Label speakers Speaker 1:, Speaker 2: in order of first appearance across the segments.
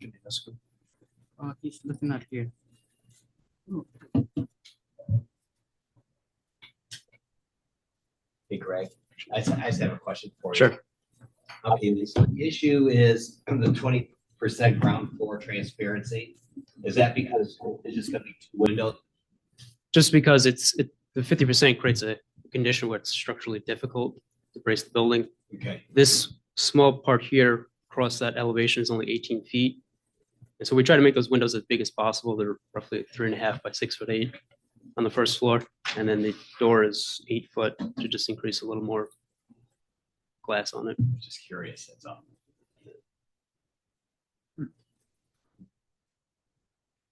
Speaker 1: to discuss.
Speaker 2: Uh, he's looking at here.
Speaker 3: Hey Greg, I just, I just have a question for you.
Speaker 4: Sure.
Speaker 3: Okay, this- the issue is the twenty percent ground floor transparency. Is that because it's just gonna be two windows?
Speaker 4: Just because it's, it, the fifty percent creates a condition where it's structurally difficult to brace the building.
Speaker 3: Okay,
Speaker 4: This small part here across that elevation is only eighteen feet. And so we try to make those windows as big as possible. They're roughly three and a half by six foot eight on the first floor. And then the door is eight foot to just increase a little more glass on it.
Speaker 3: just curious, that's all.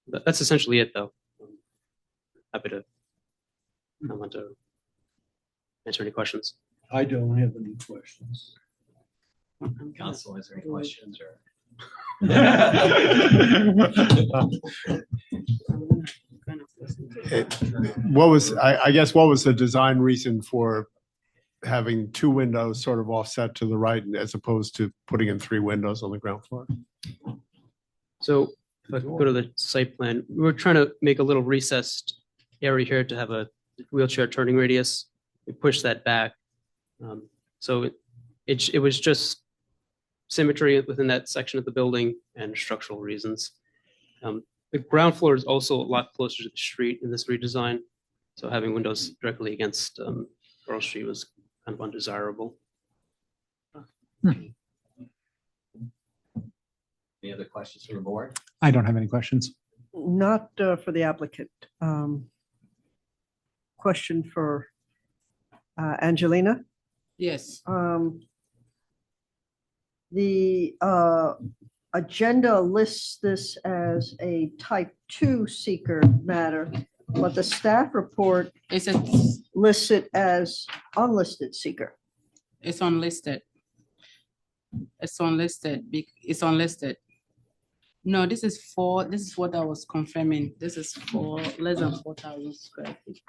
Speaker 4: But that's essentially it, though. Happy to comment or answer any questions.
Speaker 1: Hmm. I don't have any questions.
Speaker 4: Mm-hmm.
Speaker 3: Council, is there any questions or?
Speaker 5: What was, I, I guess, what was the design reason for having two windows sort of offset to the right as opposed to putting in three windows on the ground floor?
Speaker 4: So if I could go to the site plan, we were trying to make a little recessed area here to have a wheelchair turning radius. We pushed that back. Um, So it- it, j- it was just symmetry within that section of the building and structural reasons. Um, The ground floor is also a lot closer to the street in this redesign. So having windows directly against um, Earl Street was kind of undesirable.
Speaker 3: Any other questions from the board?
Speaker 6: I don't have any questions.
Speaker 7: Not uh, for the applicant. Um, Question for uh, Angelina.
Speaker 2: Yes,
Speaker 7: Um, The uh, agenda lists this as a type two seeker matter, but the staff report
Speaker 2: it's, a-
Speaker 7: lists it as unlisted seeker.
Speaker 2: it's unlisted. It's unlisted, bec- it's unlisted. No, this is for, this is what I was confirming. This is for less than four thousand square feet.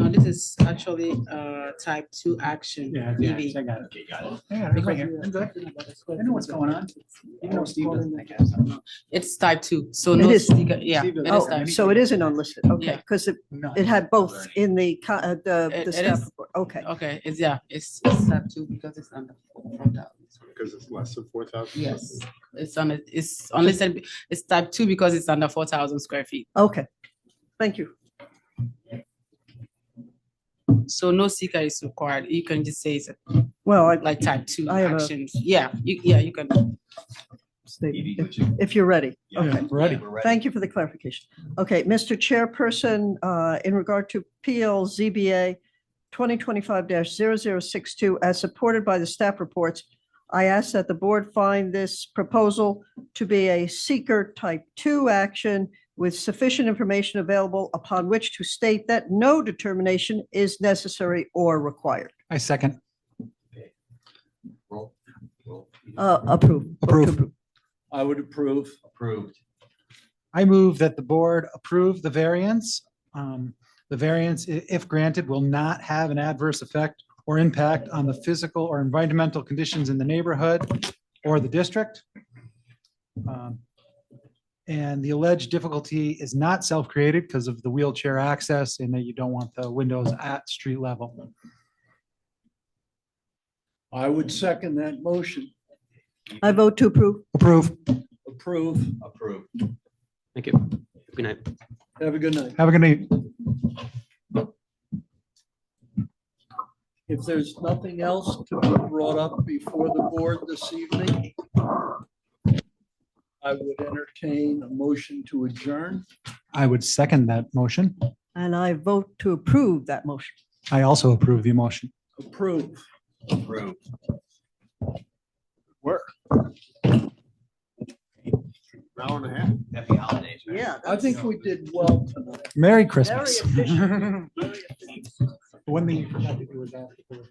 Speaker 2: No, this is actually, uh, type two action.
Speaker 6: Yeah,
Speaker 2: yeah, I
Speaker 6: I got it.
Speaker 3: Okay, got it.
Speaker 6: Yeah,
Speaker 2: Because
Speaker 6: right
Speaker 2: we
Speaker 6: here.
Speaker 2: were
Speaker 6: I'm good.
Speaker 2: talking about the square
Speaker 6: I know what's
Speaker 2: feet.
Speaker 6: going on. You know, Steve doesn't-
Speaker 2: I guess, I don't know. It's type two, so
Speaker 7: It
Speaker 2: no,
Speaker 7: is.
Speaker 2: sticker- yeah.
Speaker 6: Steve
Speaker 2: it
Speaker 6: doesn't-
Speaker 2: is
Speaker 7: Oh,
Speaker 2: type two.
Speaker 7: so it is an unlisted, okay,
Speaker 2: Yeah.
Speaker 7: because it
Speaker 6: No.
Speaker 7: it had both in the, co- uh, the
Speaker 2: It-
Speaker 7: the
Speaker 2: it
Speaker 7: staff
Speaker 2: is.
Speaker 7: report, okay.
Speaker 2: Okay, it's, yeah, it's, it's type two because it's under four thousand.
Speaker 5: Because it's less than four thousand.
Speaker 2: Yes, it's on, it- it's unlisted, it's type two because it's under four thousand square feet.
Speaker 7: Okay, thank you.
Speaker 2: So no seeker is required. You can just say it's
Speaker 7: Well, I,
Speaker 2: like type two
Speaker 7: I have a-
Speaker 2: actions. Yeah, you, yeah, you can.
Speaker 3: Evie,
Speaker 7: if
Speaker 3: would you-
Speaker 7: if you're ready.
Speaker 3: Yeah.
Speaker 7: Okay,
Speaker 3: Yeah, we're ready.
Speaker 7: thank you for the clarification. Okay, Mr. Chairperson, uh, in regard to PL ZBA 2025-0062, as supported by the staff reports, I ask that the board find this proposal to be a seeker type 2 action with sufficient information available upon which to state that no determination is necessary or required.
Speaker 6: I second.
Speaker 3: Roll, roll.
Speaker 7: Uh, Approve.
Speaker 6: Approve.
Speaker 1: I would approve.
Speaker 3: Approved.
Speaker 6: I move that the board approve the variance. Um, The variance, i- if granted, will not have an adverse effect or impact on the physical or environmental conditions in the neighborhood or the district. Um, And the alleged difficulty is not self-created because of the wheelchair access and that you don't want the windows at street level.
Speaker 1: I would second that motion.
Speaker 7: I vote to approve.
Speaker 6: Approve.
Speaker 1: Approve.
Speaker 3: Approved.
Speaker 4: Thank you. Good night.
Speaker 1: Have a good night.
Speaker 6: Have a good night.
Speaker 1: If there's nothing else to be brought up before the board this evening, I would entertain a motion to adjourn.
Speaker 6: I would second that motion.
Speaker 7: And I vote to approve that motion.
Speaker 6: I also approve the motion.
Speaker 1: Approve.
Speaker 3: Approved.
Speaker 5: Hour and a half.
Speaker 3: Happy holidays. man.
Speaker 7: Yeah.
Speaker 1: I think we did well tonight.
Speaker 6: Merry
Speaker 7: Very
Speaker 6: Christmas.
Speaker 7: efficient.
Speaker 6: One thing you forgot to do was ask. for-